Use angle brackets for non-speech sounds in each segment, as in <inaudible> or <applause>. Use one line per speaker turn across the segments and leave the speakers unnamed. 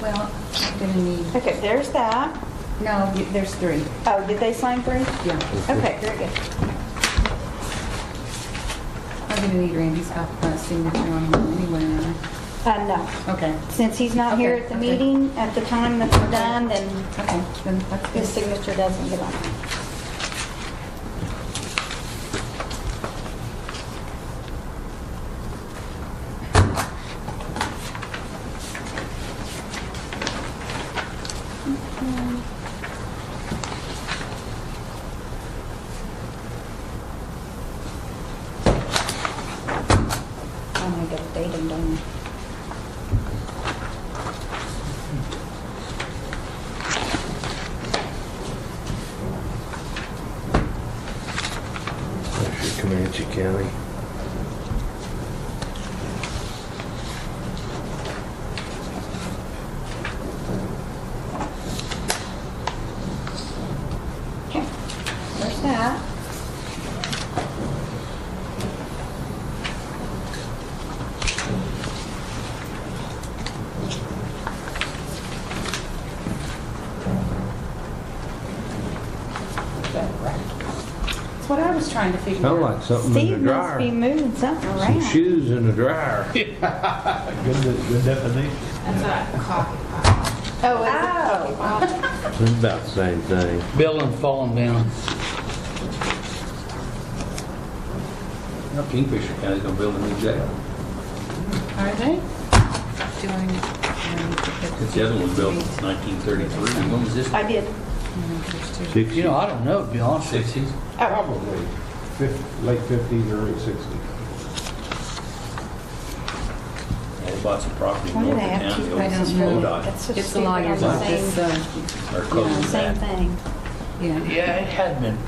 Well, I'm gonna need,
Okay, there's that.
no, you- there's three.
Oh, did they sign three?
Yeah.
Okay, very good.
I'm gonna need Randy's uh, signature on them anyway. aren't
Uh, no.
I? Okay.
Since he's not here at the
Okay, okay.
meeting, at the time that we're done, then
Okay, then that's
his
good.
signature doesn't get on. I'm gonna get a date and done.
That's your Comanche County.
Okay, there's that.
That's what I was trying to figure
Sound
out.
like something in the
Steve must be
dryer.
moving something
Some
around.
shoes in the
<laughs>
dryer.
Good, good definition.
Oh, is
It's about the same thing.
Building falling down.
Now Kingfisher County's gonna build a new jail.
Are they? um, Do I need- I need to get-
Since the other one was built in 1933, when was this?
it? I did.
Six
You know, I don't know, to be honest with you.
60s?
Oh.
Probably fif- late 50s, early 60s.
Yeah, They bought some property
Why do
north of
they have
town.
to-
the
I
old
don't know.
Bodot,
That's so
It's the
stupid on
lawyer's
the
office,
same-
so,
Or close to
Same
that.
thing.
uh, yeah.
Yeah, it had been,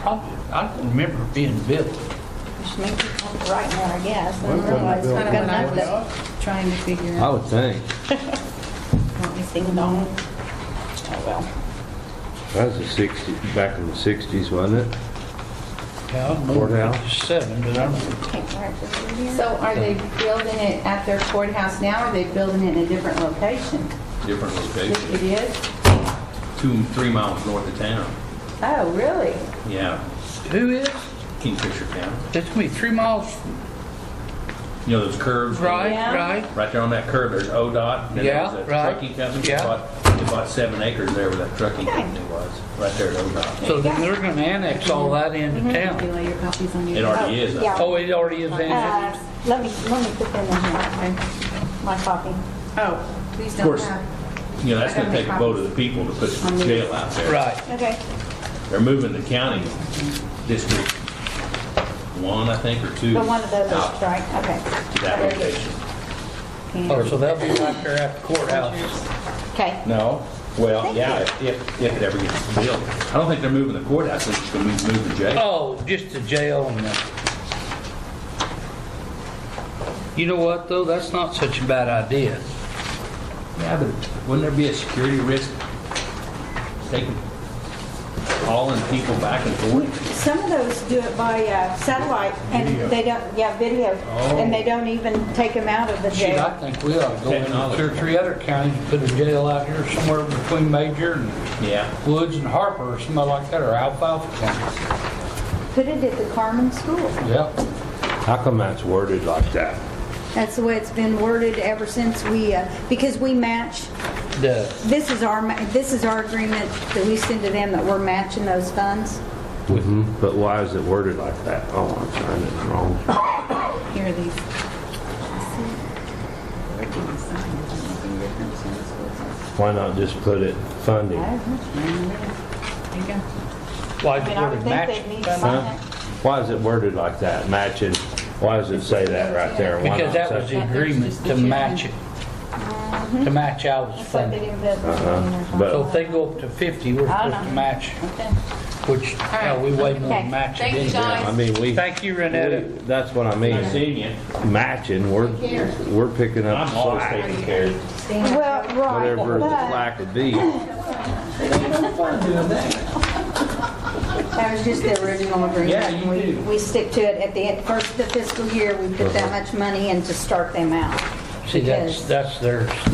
probably, I don't remember it being built.
Which makes it look right now, I guess. I
Well,
don't know why it's
well,
Kind
not good
of what I
enough to-
was trying to figure
I
out.
would think.
Let me see.
Ding dong. Oh, well.
That was the 60, back in the 60s, wasn't it?
Yeah, I don't know.
Courthouse.
Seven, but I don't,
Can't mark this in here.
So are they building it at their courthouse now, or are they building it in a different location?
different location,
It is?
two, three miles north of town.
Oh, really?
Yeah,
who is?
Kingfisher County.
It's gonna be three miles
You know those curves?
right,
Yeah.
right?
Right there on that curve, there's ODOT. and then there was
Yeah,
that
right.
Trucking company, they
Yeah.
bought, they bought seven acres there where that trucking company was, right there at ODOT.
So then they're gonna annex all that into
Can you
town.
lay your copies on your
It already is.
Yeah.
Oh, it already is
Uh,
annexed?
Let me, let me put them in here, my copy.
Oh, please
Of
don't
course.
have.
You know, that's
I gotta
gonna take a
make
vote of the people to put the jail out there.
Right.
Okay.
They're moving the county district one, I think, or two.
But one of those,
out
is right, okay.
To that
Very good.
location.
Oh, so that'll be right there at the courthouse.
Okay.
No, well,
Thank
yeah, if, if if it ever gets built. I don't think they're moving the courthouse, they're just gonna move move the jail.
Oh, just the jail and the... You know what, though? That's not such a bad idea.
Yeah, but wouldn't there be a security risk taking, hauling people back and forth?
Some of those do it by uh, satellite, and they don't, yeah, video, and they don't even take them out of the
Shoot, I
jail.
think we ought to go in
Technology.
two or three other counties, and put a jail out here somewhere between Major and
Yeah,
Woods and Harper or somebody like that, or Alfalfa County.
Put it at the Carmen School.
Yeah.
How come that's worded like that?
That's the way it's been worded ever since we, uh, because we match,
The,
this is our, ma- this is our agreement that we send to them that we're matching those funds.
Mm-hmm. But why is it worded like that? Oh, I'm signing it wrong.
Here are these. Where do you sign? Does it make any difference in this process?
Why not just put it funding?
I don't know. There you go.
why
I
is
mean,
it
I would
worded
think they'd need
match?
to
Huh?
sign it.
Why is it worded like that? Matching, why does it say that right there? Why not
Because that
say-
was the agreement to match it, to match Al's
Mm-hmm. It's like they
funding.
didn't build the building or something.
Uh-huh. but-
So if they go up to 50, we're supposed to match,
Okay.
which, hell, we way more
Okay.
than match it
Thank you,
anyway.
guys.
I mean, we.
Thank you, Renetta.
we- That's what I mean.
I seen you.
Matching, we're, we're picking up
I'm always
slack,
taking care of
Well, right,
whatever the
but
slack would be.
that was just the original agreement.
Yeah, you
We-
do.
We stick to it at the end-
Uh-huh.
first of the fiscal year, we put that much money in to start them out.
See,
Because-
that's, that's their